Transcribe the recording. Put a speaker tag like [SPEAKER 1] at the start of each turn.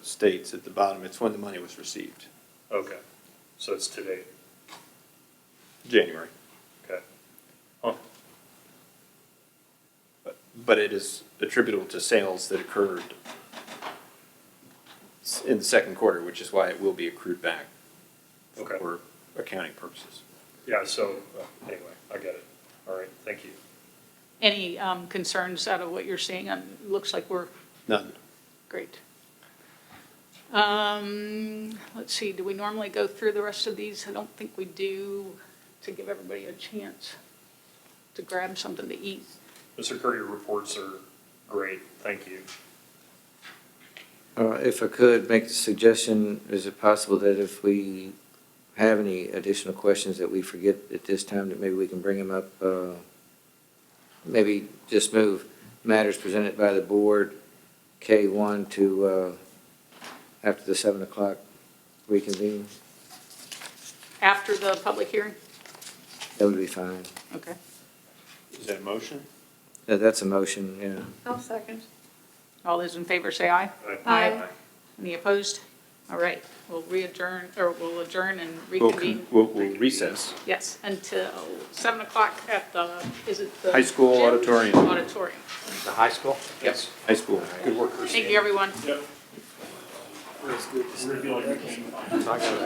[SPEAKER 1] states at the bottom, it's when the money was received,
[SPEAKER 2] Okay, so it's today,
[SPEAKER 1] January.
[SPEAKER 2] okay. Huh,
[SPEAKER 1] But- But it is attributable to sales that occurred s- in the second quarter, which is why it will be accrued back
[SPEAKER 2] Okay.
[SPEAKER 1] for accounting purposes.
[SPEAKER 2] yeah, so, uh, anyway, I get it. All right, thank you.
[SPEAKER 3] Any um, concerns out of what you're seeing? Um, it Looks like we're
[SPEAKER 1] None.
[SPEAKER 3] great. Um, Let's see, do we normally go through the rest of these? I don't think we do, to give everybody a chance to grab something to eat.
[SPEAKER 2] Mr. Curry, your reports are great, thank you.
[SPEAKER 4] Uh, If I could make the suggestion, is it possible that if we have any additional questions that we forget at this time, that maybe we can bring them up? uh, Maybe just move matters presented by the board, K1 to uh, after the 7 o'clock reconvene?
[SPEAKER 3] After the public hearing?
[SPEAKER 4] That would be fine.
[SPEAKER 3] Okay.
[SPEAKER 1] Is that a motion?
[SPEAKER 4] Yeah, That's a motion, yeah.
[SPEAKER 5] I'll second.
[SPEAKER 3] All those in favor say aye.
[SPEAKER 5] Aye.
[SPEAKER 3] Any opposed? All right, we'll readjourn, or we'll adjourn and
[SPEAKER 1] We'll,
[SPEAKER 3] reconvene.
[SPEAKER 1] con- we'll we'll recess.
[SPEAKER 3] Yes, until 7 o'clock at the, is it the?
[SPEAKER 1] High school
[SPEAKER 3] gym?
[SPEAKER 1] auditorium.
[SPEAKER 3] Auditorium.
[SPEAKER 6] The high school? Yes.
[SPEAKER 1] High school.
[SPEAKER 2] Good work, Christine.
[SPEAKER 3] Thank you, everyone.
[SPEAKER 2] We're feeling-
[SPEAKER 6] I got it.